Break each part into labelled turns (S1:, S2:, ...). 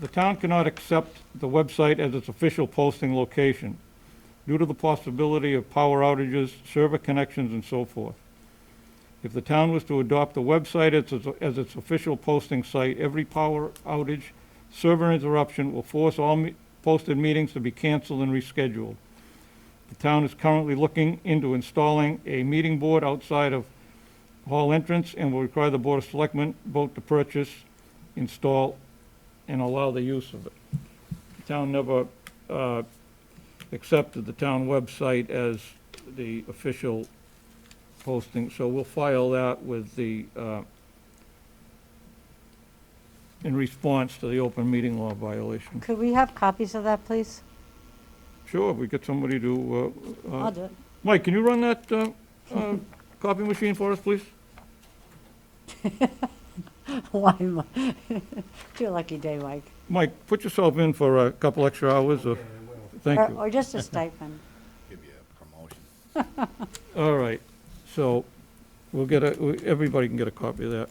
S1: The town cannot accept the website as its official posting location due to the possibility of power outages, server connections, and so forth. If the town was to adopt the website as its, as its official posting site, every power outage, server interruption will force all me- posted meetings to be canceled and rescheduled. The town is currently looking into installing a meeting board outside of hall entrance and will require the Board of Selectmen vote to purchase, install, and allow the use of it. The town never uh, accepted the town website as the official posting, so we'll file that with the, uh, in response to the open meeting law violation.
S2: Could we have copies of that, please?
S1: Sure, if we get somebody to, uh, uh,
S2: I'll do it.
S1: Mike, can you run that uh, uh, copy machine for us, please?
S2: Why, Mike? It's your lucky day, Mike.
S1: Mike, put yourself in for a couple extra hours, or, thank
S2: Or
S1: you.
S2: or just a stipend.
S3: Give you a promotion.
S1: All right, so we'll get a, we- everybody can get a copy of that.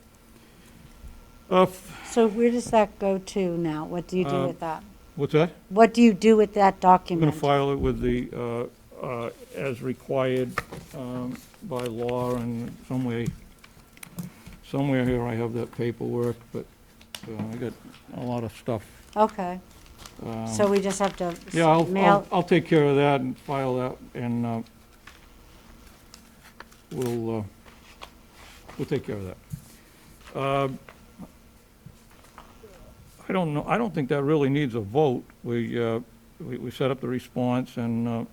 S1: Uh, f-
S2: So where does that go to now? What do you do
S1: Um,
S2: with that?
S1: What's that?
S2: What do you do with that
S1: I'm going
S2: document?
S1: to file it with the, uh, uh, as required um, by law and some way, somewhere here I have that paperwork, but uh, I got a lot of stuff.
S2: Okay,
S1: um,
S2: so we just have to s-
S1: Yeah, I'll- I'll,
S2: mail,
S1: I'll take care of that and file that, and uh, we'll, uh, we'll take care of that. Um, I don't know, I don't think that really needs a vote. We, uh, we we set up the response, and uh,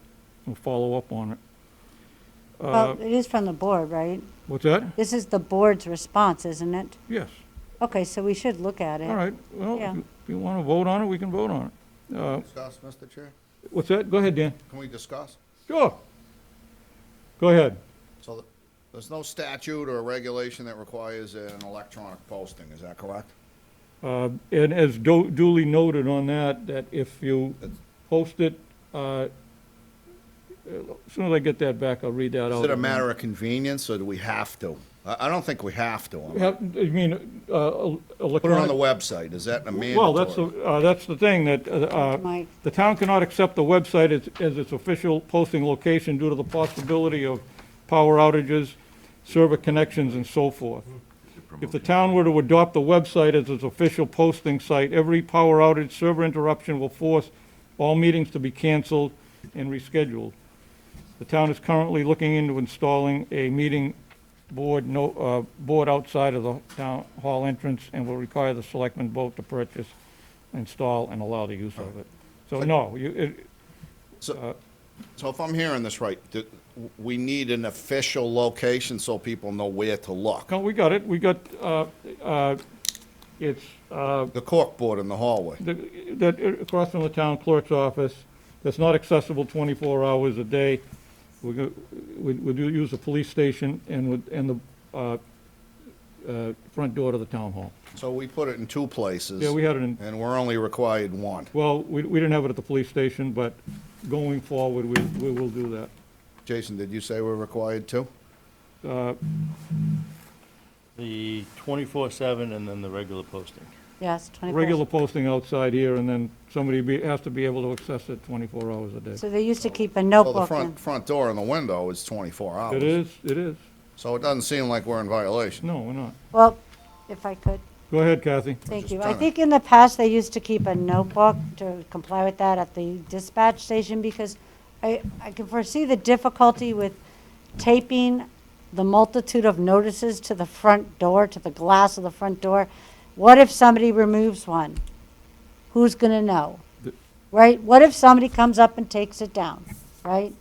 S1: we'll follow up on it. Uh,
S2: well, it is from the board, right?
S1: What's that?
S2: This is the board's response, isn't it?
S1: Yes.
S2: Okay, so we should look at it.
S1: All right, well,
S2: Yeah.
S1: if you- if you want to vote on it, we can vote on it. Uh,
S3: Discuss, Mr. Chair?
S1: What's that? Go ahead, Dan.
S3: Can we discuss?
S1: Sure. Go ahead.
S3: So th- there's no statute or regulation that requires an electronic posting, is that correct?
S1: Uh, And as du- duly noted on that, that if you post it, uh, as soon as I get that back, I'll read that out.
S3: Is it a matter of convenience, or do we have to? I, I don't think we have to.
S1: You have- you mean, uh, electronic?
S3: Put it on the website, is that a mandatory?
S1: Well, that's, the- uh, that's the thing, that uh, uh,
S2: Mike.
S1: the town cannot accept the website as, as its official posting location due to the possibility of power outages, server connections, and so forth. If the town were to adopt the website as its official posting site, every power outage, server interruption will force all meetings to be canceled and rescheduled. The town is currently looking into installing a meeting board, no, uh, board outside of the town hall entrance and will require the selectmen vote to purchase, install, and allow the use of it. So no, you, it,
S3: So so if I'm hearing this right, th- we need an official location so people know where to look.
S1: no, we got it, we got, uh, uh, it's, uh,
S3: The corkboard in the hallway.
S1: the- that, uh, across from the town clerk's office, that's not accessible twenty-four hours a day. We go, we, we do use the police station and would, and the, uh, uh, front door to the town hall.
S3: So we put it in two places.
S1: Yeah, we had it in,
S3: And we're only required one.
S1: Well, we, we didn't have it at the police station, but going forward, we, we will do that.
S3: Jason, did you say we're required two?
S1: Uh,
S4: The twenty-four seven and then the regular posting.
S2: Yes, 24.
S1: Regular posting outside here, and then somebody be, has to be able to access it twenty-four hours a day.
S2: So they used to keep a
S3: Well, Oh, the
S2: notebook in.
S3: front, front door and the window is 24 hours.
S1: It is, it is.
S3: So it doesn't seem like we're in violation.
S1: No, we're not.
S2: Well, if I could,
S1: Go ahead, Kathy.
S2: thank
S3: just
S2: you. I
S3: trying to-
S2: think in the past, they used to keep a notebook to comply with that at the dispatch station because I, I can foresee the difficulty with taping the multitude of notices to the front door, to the glass of the front door. What if somebody removes one? Who's gonna know?
S1: The-
S2: Right? What if somebody comes up and takes it down, right?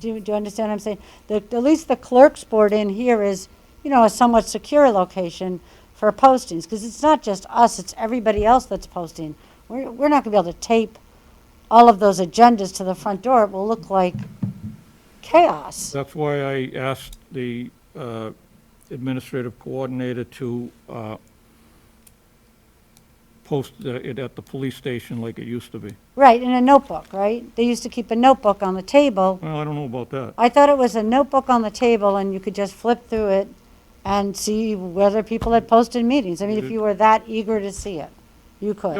S2: Do you, do you understand what I'm saying? The, at least the clerk's board in here is, you know, a somewhat secure location for postings, because it's not just us, it's everybody else that's posting. We're, we're not gonna be able to tape all of those agendas to the front door. It will look like chaos.
S1: That's why I asked the uh, administrative coordinator to uh, post the- it at the police station like it used to be.
S2: Right, in a notebook, right? They used to keep a notebook on the table.
S1: Well, I don't know about that.
S2: I thought it was a notebook on the table and you could just flip through it and see whether people had posted meetings. I mean, if you were that eager to see it, you could.